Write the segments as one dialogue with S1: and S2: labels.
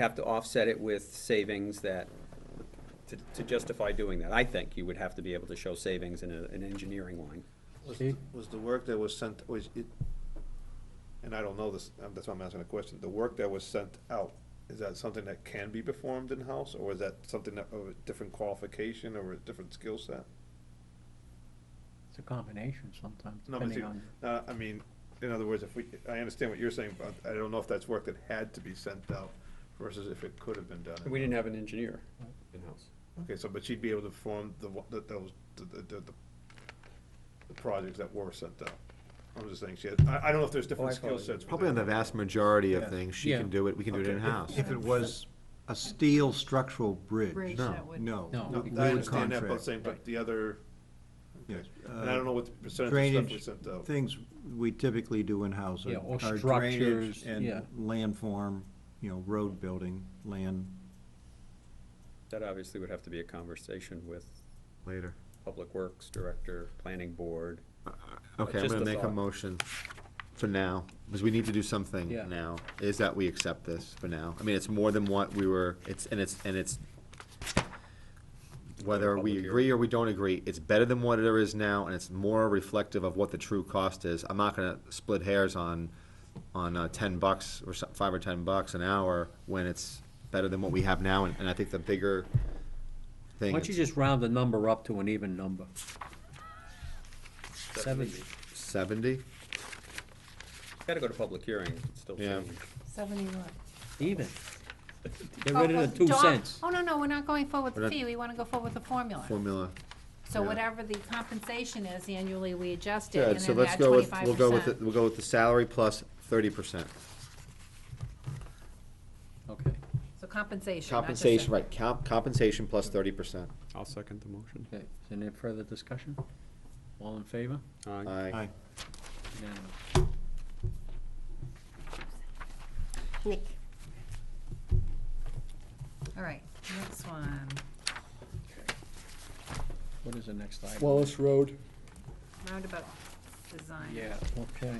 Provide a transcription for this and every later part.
S1: have to offset it with savings that, to- to justify doing that. I think you would have to be able to show savings in a- an engineering line.
S2: Was,
S3: Okay.
S2: the- was the work that was sent, was it, and I don't know this, um, that's why I'm asking the question, the work that was sent out, is that something that can be performed in-house, or is that something that, of a different qualification or a different skill set?
S3: It's a combination sometimes,
S2: No, but
S3: depending
S2: see,
S3: on,
S2: uh, I mean, in other words, if we, I understand what you're saying, but I don't know if that's work that had to be sent out versus if it could have been done.
S1: We didn't have an engineer in-house.
S2: Okay, so, but she'd be able to perform the, wa- the- those, the, the, the, the projects that were sent out. I'm just saying, she had, I, I don't know if there's different
S1: I follow
S2: skill
S1: you.
S2: sets.
S4: Probably on the
S2: within-
S4: vast majority
S2: Yeah.
S4: of things, she
S3: Yeah.
S4: can do it, we can do it
S2: Okay.
S4: in-house.
S5: If it was a steel structural bridge.
S6: Bridge,
S4: No,
S6: that would.
S5: No.
S3: No.
S2: No,
S5: we
S2: I
S5: would
S2: understand that, but
S5: contract.
S2: saying, but the other,
S5: Yes.
S2: and I don't know what the percentage of stuff we
S5: Drainage,
S2: sent out.
S5: things we typically do in-house are
S3: Yeah, or
S5: are
S3: structures,
S5: drainage and
S3: yeah.
S5: landform, you know, road building, land.
S1: That obviously would have to be a conversation with
S4: Later.
S1: Public Works Director, Planning Board.
S4: Okay, I'm
S1: Just
S4: gonna
S1: a
S4: make a
S1: thought.
S4: motion for now, because we need to do something
S3: Yeah.
S4: now, is that we accept this for now. I mean, it's more than what we were, it's, and it's, and it's, whether
S1: Public
S4: we
S1: hearing.
S4: agree or we don't agree, it's better than what there is now, and it's more reflective of what the true cost is. I'm not gonna split hairs on, on uh, ten bucks or so- five or ten bucks an hour when it's better than what we have now, and, and I think the bigger
S3: why
S4: thing.
S3: don't you just round the number up to an even number? Seventy.
S4: Seventy?
S1: Got to go to public hearing, it's still
S4: Yeah.
S1: change.
S6: Seventy-one.
S3: Even. Get rid of the two cents.
S6: Oh, no, no, we're not going forward with
S4: We're
S6: the
S4: not-
S6: fee, we wanna go forward with the formula.
S4: Formula.
S6: So
S4: yeah.
S6: whatever the compensation is annually, we adjust it, and
S4: Good, so
S6: then we
S4: let's
S6: add
S4: go with,
S6: twenty-five
S4: we'll go with, the-
S6: percent.
S4: we'll go with the salary plus thirty percent.
S3: Okay,
S6: So compensation, not just
S4: Compensation,
S6: a-
S4: right, comp, compensation plus thirty percent.
S1: I'll second the motion.
S3: okay. Is there any further discussion? All in favor?
S4: Aye.
S5: Aye.
S3: Unanimous.
S7: Nick,
S6: All right, next one.
S3: What is the next item?
S8: Wallace Road,
S6: Roundabout design.
S3: Yeah, okay.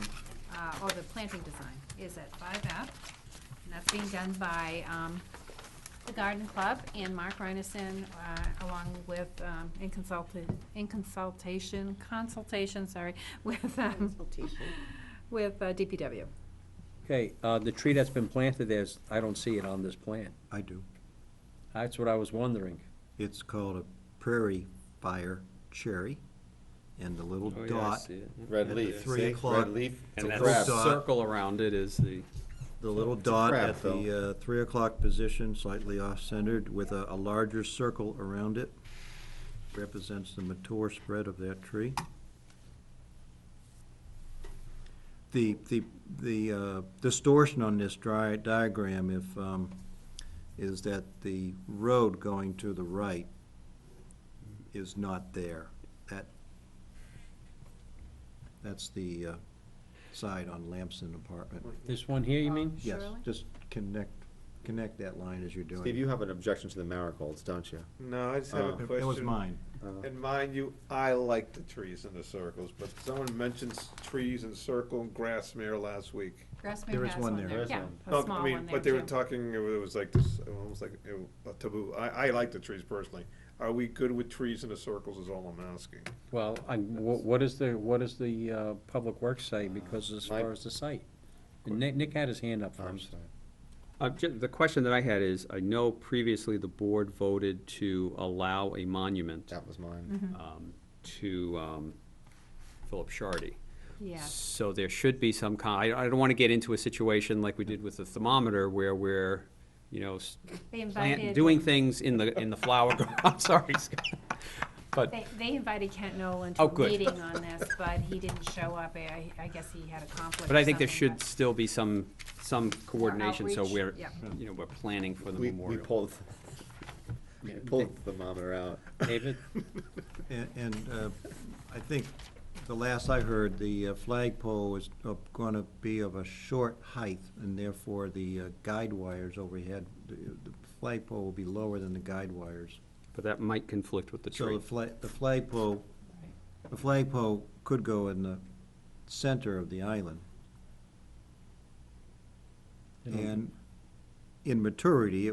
S6: uh, or the planting design is at five F. And that's being done by, um, the Garden Club and Mark Reinison, uh, along with, um, in consulted, in consultation, consultation, sorry, with, um,
S7: consultation.
S6: with uh, DPW.
S3: Okay, uh, the tree that's been planted there's, I don't see it on this plan.
S5: I do.
S3: That's what I was wondering.
S5: It's called a prairie fire cherry, and the
S3: Oh,
S5: little
S1: Oh,
S5: dot,
S4: Red
S5: At
S4: leaf,
S5: three
S4: see?
S5: o'clock.
S4: red leaf.
S5: And
S4: it's a
S5: that's
S4: crab.
S5: so-
S1: circle around it is the.
S5: the little
S4: It's a
S5: dot
S4: crab,
S5: at the uh, three o'clock position, slightly off-centered, with a, a larger circle around it, represents the mature spread of that tree. The, the, the uh, distortion on this dri- diagram, if, um, is that the road going to the right is not there. That, that's the uh, side on Lamson apartment.
S3: This one here, you mean?
S5: Yes,
S6: Shirley?
S5: just connect, connect that line as you're doing.
S4: Steve,
S5: it. Uh,
S4: you have an objection to the marigolds, don't you?
S2: No, I just have a
S4: Oh.
S2: question. Uh,
S5: That was mine.
S2: And mind you, I like the trees and the circles, but someone mentions trees and circle and Grassmere last week.
S5: There
S6: Grassmere
S5: is
S6: has
S5: one
S6: one
S5: there.
S6: there,
S4: There is
S6: yeah,
S4: one.
S6: a
S1: Oh,
S2: No,
S6: small
S2: I
S6: one
S2: mean,
S6: there
S2: but they were
S6: too.
S2: talking, it was like this, almost like a taboo. I, I like the trees personally. Are we good with trees and the circles is all I'm asking.
S3: Well, I, wh- what is the, what does the, uh, Public Works say, because as
S4: Mike?
S3: far as the site? And Nick, Nick had his hand up
S4: I'm
S3: first.
S4: sorry.
S1: Uh, The question that I had is, I know previously the board voted to allow a monument
S4: That was
S6: Mm-hmm.
S4: mine.
S1: um, to um, Philip Shardy.
S6: Yeah,
S1: So there should be some kind, I I don't want to get into a situation like we did with the thermometer where we're, you know, s-
S6: they
S1: plant-
S6: invited,
S1: doing things in the, in the flower, gar- I'm sorry, Scott. But
S6: they, they invited Kent Nolan to
S1: Oh,
S6: a
S1: good.
S6: meeting on this, but he didn't show up, I, I guess he had a conflict
S1: But I think there
S6: or something,
S1: should
S6: but-
S1: still be some, some coordination, so
S6: outreach,
S1: we're,
S6: yeah.
S1: you know, we're planning for the
S4: We, we
S1: memorial.
S4: pulled, we pulled the thermometer out.
S3: David?
S5: And, and uh, I think the last I heard, the uh, flagpole is going to be of a short height, and therefore the uh, guide wires overhead, the the flagpole will be lower than the guide wires.
S1: But that might conflict with the
S5: So
S1: tree.
S5: the flag, the flagpole, the flagpole could go in the center of the island.
S3: You know,
S5: And
S4: in maturity,